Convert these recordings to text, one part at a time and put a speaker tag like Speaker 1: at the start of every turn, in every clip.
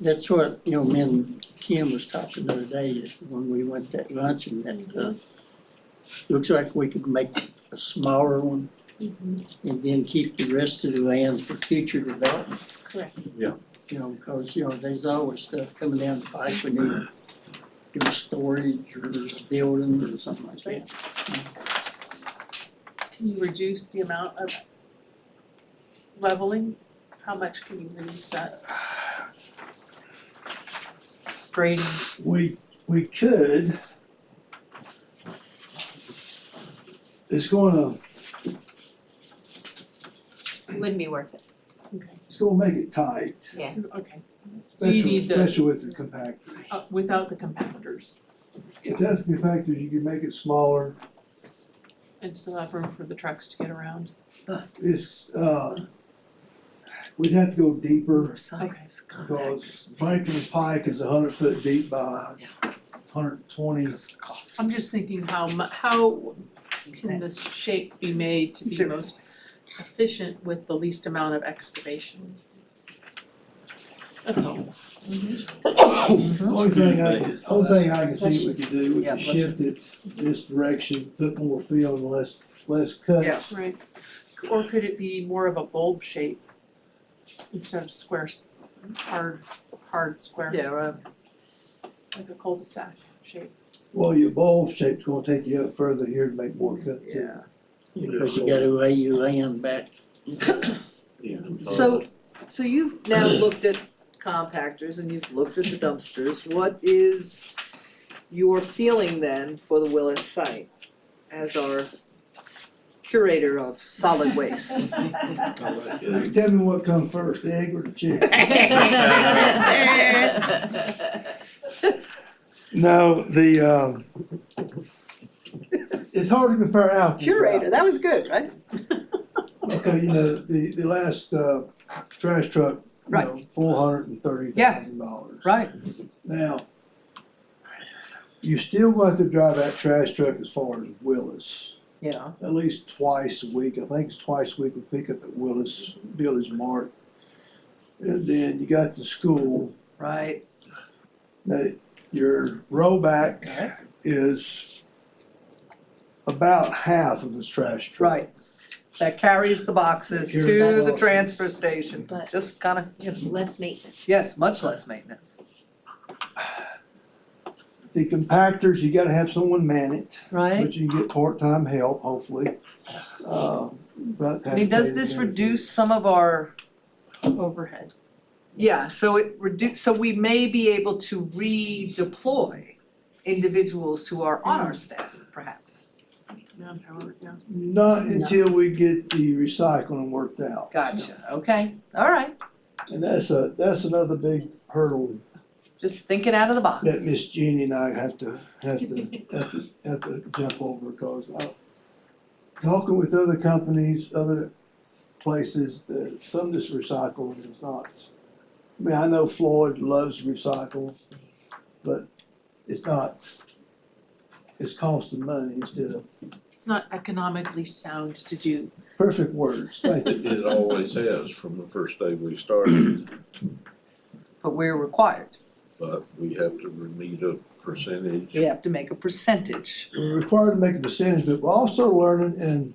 Speaker 1: That's what, you know, me and Kim was talking the other day, is when we went that luncheon, that, uh, looks like we could make a smaller one and then keep the rest of the land for future development,
Speaker 2: Correct.
Speaker 1: you know, because, you know, there's always stuff coming down the pipe we need to do storage or building or something like that.
Speaker 2: Can you reduce the amount of leveling? How much can you reduce that? Grading,
Speaker 3: We, we could. It's gonna,
Speaker 4: Wouldn't be worth it.
Speaker 2: okay,
Speaker 3: it's gonna make it tight,
Speaker 2: okay. So you
Speaker 3: especially,
Speaker 2: need the,
Speaker 3: especially with the compactors.
Speaker 2: uh, without the compactors
Speaker 3: Without the compactors, you can make it smaller,
Speaker 2: and still have room for the trucks to get around?
Speaker 3: it's, uh, we'd have to go deeper,
Speaker 2: sites,
Speaker 3: because Franklin Pike is a hundred foot deep by hundred twenty.
Speaker 2: I'm just thinking how mu- how can this shape be made to be most efficient with the least amount of excavation? That's all.
Speaker 3: Only thing I, only thing I can see we could do, we
Speaker 1: Yeah,
Speaker 3: could
Speaker 1: bless you.
Speaker 3: shift it this direction, put more fill and less, less cut.
Speaker 1: Yeah.
Speaker 2: Right, or could it be more of a bulb shape instead of square, s- hard, hard square?
Speaker 5: Yeah, right.
Speaker 2: Like a cul-de-sac shape.
Speaker 3: Well, your bulb shape's gonna take you up further here to make more cut too.
Speaker 1: Because you gotta lay your land back.
Speaker 5: So, so you've now looked at compactors and you've looked at the dumpsters, what is your feeling then for the Willis site as our curator of solid waste?
Speaker 3: Tell me what come first, the egg or the chicken? No, the, um, it's hard to compare apples. to
Speaker 5: Curator, that was good, right?
Speaker 3: apples. Okay, you know, the, the last, uh, trash truck, you
Speaker 5: Right.
Speaker 3: know, four hundred and thirty thousand dollars.
Speaker 5: Right.
Speaker 3: Now, you still want to drive that trash truck as far as Willis,
Speaker 5: Yeah,
Speaker 3: at least twice a week, I think it's twice a week we pick up at Willis Village Mart. And then you got the school,
Speaker 5: right.
Speaker 3: that your rollback is about half of its trash truck.
Speaker 5: Right. That carries the boxes
Speaker 3: Carries
Speaker 5: to
Speaker 3: the
Speaker 5: the
Speaker 3: boxes.
Speaker 5: transfer station,
Speaker 4: But-
Speaker 5: just kind of, you know,
Speaker 4: Less maintenance.
Speaker 5: yes, much less maintenance.
Speaker 3: The compactors, you gotta have someone man it,
Speaker 5: Right.
Speaker 3: but you can get part-time help, hopefully. Uh, but
Speaker 5: I mean, does
Speaker 3: that's-
Speaker 5: this reduce some of our
Speaker 2: Overhead.
Speaker 5: Yeah, so it reduce, so we may be able to redeploy individuals who are on our staff perhaps.
Speaker 3: Not until we get the recycling worked out.
Speaker 5: Gotcha, okay, all right,
Speaker 3: And that's a, that's another big hurdle
Speaker 5: just thinking out of the box.
Speaker 3: that Miss Jeannie and I have to, have to, have to, have to jump over, cause I, talking with other companies, other places, that some of this recycling is not. I mean, I know Floyd loves recycle, but it's not, it's costing money instead of,
Speaker 2: It's not economically sound to do.
Speaker 3: perfect words, thank you.
Speaker 6: It it always has from the first day we started,
Speaker 5: But we're required,
Speaker 6: but we have to meet a percentage.
Speaker 5: we have to make a percentage.
Speaker 3: we're required to make a percentage, but we're also learning, and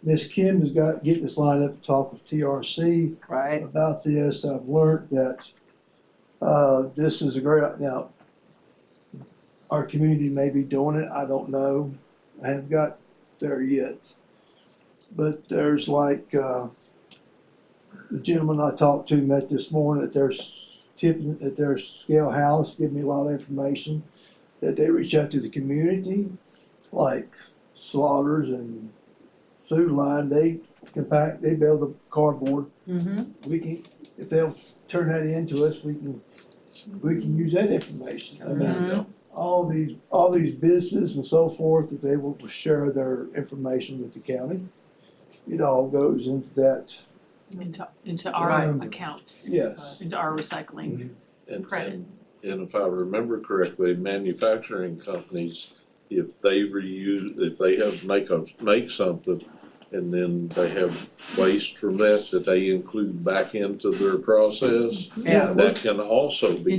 Speaker 3: Miss Kim has got, getting this lined up to talk with TRC
Speaker 5: Right.
Speaker 3: about this, I've learned that, uh, this is a great, now, our community may be doing it, I don't know, I haven't got there yet. But there's like, uh, the gentleman I talked to met this morning at their s- tipping, at their scale house, giving me a lot of information, that they reach out to the community, like Slaughters and Food Line, they compact, they build the cardboard
Speaker 5: Mm-hmm.
Speaker 3: we can, if they'll turn that in to us, we can, we can use that information. I mean,
Speaker 5: Mhm.
Speaker 3: all these, all these businesses and so forth, if they will share their information with the county, it all goes into that,
Speaker 2: Into, into our
Speaker 3: Right.
Speaker 2: account,
Speaker 3: yes.
Speaker 2: into our recycling.
Speaker 6: And
Speaker 2: Correct.
Speaker 6: and and if I remember correctly, manufacturing companies, if they reuse, if they have make a, make something, and then they have waste from that that they include back into their process.
Speaker 3: Yeah,
Speaker 6: That can also be